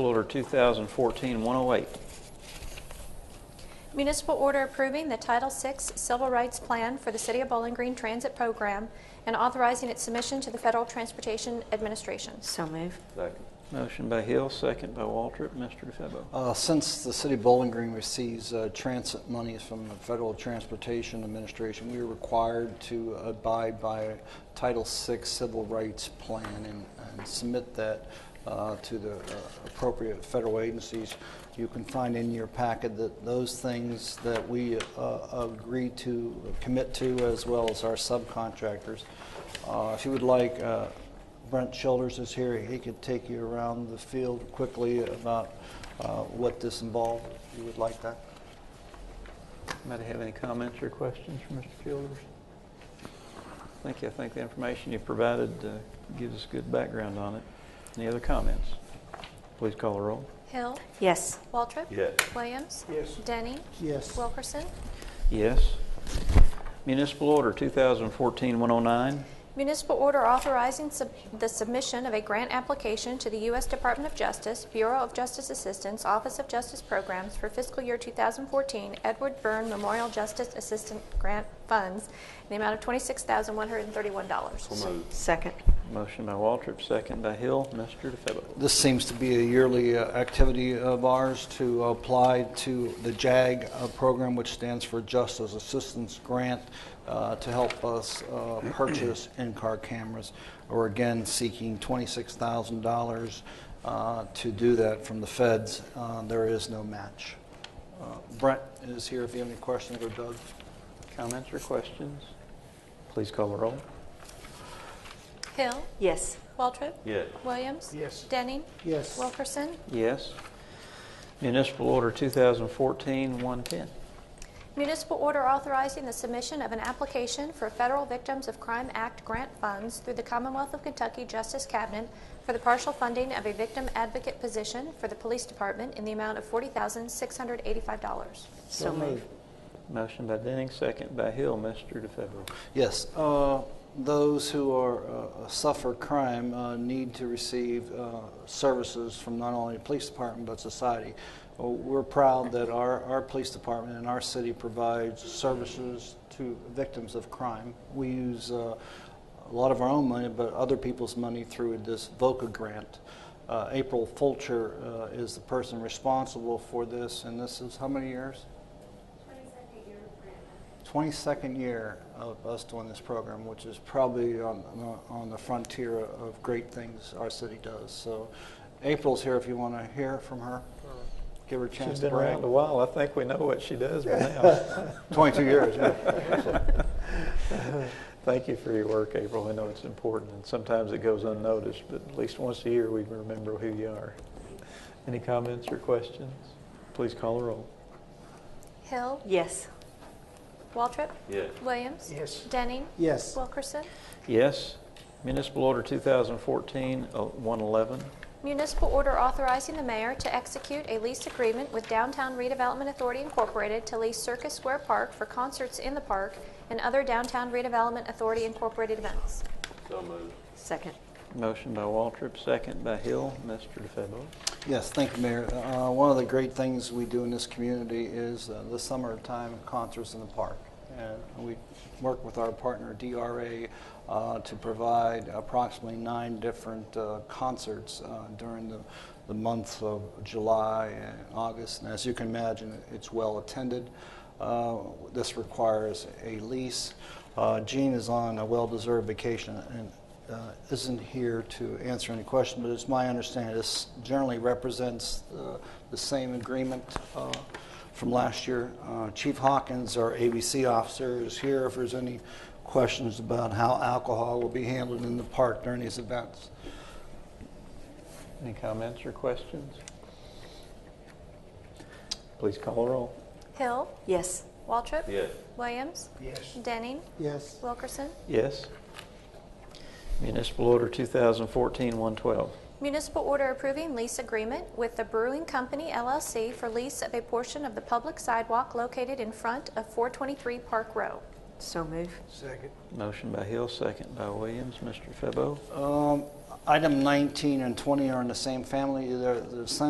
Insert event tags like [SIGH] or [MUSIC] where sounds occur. Order 2014-108. Municipal order approving the Title VI Civil Rights Plan for the City of Bowling Green Transit Program and authorizing its submission to the Federal Transportation Administration. So move. Second. Motion by Hill, second by Waltrip. Mr. DeFebo. Uh, Since the city of Bowling Green receives uh, transit monies from the Federal Transportation Administration, we are required to abide by Title VI Civil Rights Plan and and submit that uh, to the uh, appropriate federal agencies. You can find in your packet that those things that we uh, agree to commit to, as well as our subcontractors. Uh, If you would like, uh, Brent Childers is here. He could take you around the field quickly about uh, what this involved, if you would like that. Anybody have any comments or questions for Mr. Childers? Thank you. I think the information you provided uh, gives us good background on it. Any other comments? Please call the roll. Hill. Yes. Waltrip. Yes. Williams. Yes. Denny. Yes. Wilkerson. Yes. Municipal Order 2014-109. Municipal order authorizing sub- the submission of a grant application to the U.S. Department of Justice, Bureau of Justice Assistance, Office of Justice Programs for fiscal year 2014 Edward Byrne Memorial Justice Assistant Grant Funds in the amount of $26,131. So moved. Second. Motion by Waltrip, second by Hill. Mr. DeFebo. This seems to be a yearly uh, activity of ours to apply to the JAG uh, program, which stands for Justice Assistance Grant, uh, to help us uh, [CLEARS THROAT] purchase in-car cameras. We're again seeking $26,000 uh, to do that from the feds. Uh, There is no match. Uh, Brent is here if you have any questions, or Doug. Comments or questions? Please call the roll. Hill. Yes. Waltrip. Yes. Williams. Yes. Denning. Yes. Wilkerson. Yes. Municipal Order 2014-110. Municipal order authorizing the submission of an application for Federal Victims of Crime Act grant funds through the Commonwealth of Kentucky Justice Cabinet for the partial funding of a victim advocate position for the police department in the amount of $40,685. So move. Motion by Denning, second by Hill. Mr. DeFebo. Yes, uh, those who are, uh, suffer crime uh, need to receive uh, services from not only the police department but society. Uh, We're proud that our, our police department and our city provides services to victims of crime. We use uh, a lot of our own money, but other people's money through this VOCA grant. Uh, April Fulcher uh, is the person responsible for this, and this is how many years? 22nd year of us doing this program, which is probably on, on the frontier of great things our city does. So April's here if you want to hear from her, give her a chance She's to been brag. around a while. I think we know what she does by [LAUGHS] now. 22 years, yeah. [LAUGHS] Thank you for your work, April. I know it's important, and sometimes it goes unnoticed, but at least once a year we remember who you are. Any comments or questions? Please call the roll. Hill. Yes. Waltrip. Yes. Williams. Yes. Denning. Yes. Wilkerson. Yes. Municipal Order uh, 2014-111. Municipal order authorizing the mayor to execute a lease agreement with Downtown Redevelopment Authority Incorporated to lease Circus Square Park for concerts in the park and other Downtown Redevelopment Authority Incorporated events. So moved. Second. Motion by Waltrip, second by Hill. Mr. DeFebo. Yes, thank you, Mayor. Uh, One of the great things we do in this community is uh, the summertime concerts in the park. And we work with our partner DRA uh, to provide approximately nine different uh, concerts uh, during the the months of July and August. And as you can imagine, it's well-attended. Uh, This requires a lease. Uh, Gene is on a well-deserved vacation, and uh, isn't here to answer any question, but it's my understanding this generally represents uh, the same agreement uh, from last year. Uh, Chief Hawkins, our ABC officer, is here if there's any questions about how alcohol will be handled in the park during these events. Any comments or questions? Please call the roll. Hill. Yes. Waltrip. Yes. Williams. Denning. Yes. Wilkerson. Yes. Municipal Order 2014-112. Municipal order approving lease agreement with the Brewing Company LLC for lease of a portion of the public sidewalk located in front of 423 Park Row. So move. Motion by Hill, second by Williams. Mr. Febo. Um, Item 19 and 20 are in the same family. They're they're essentially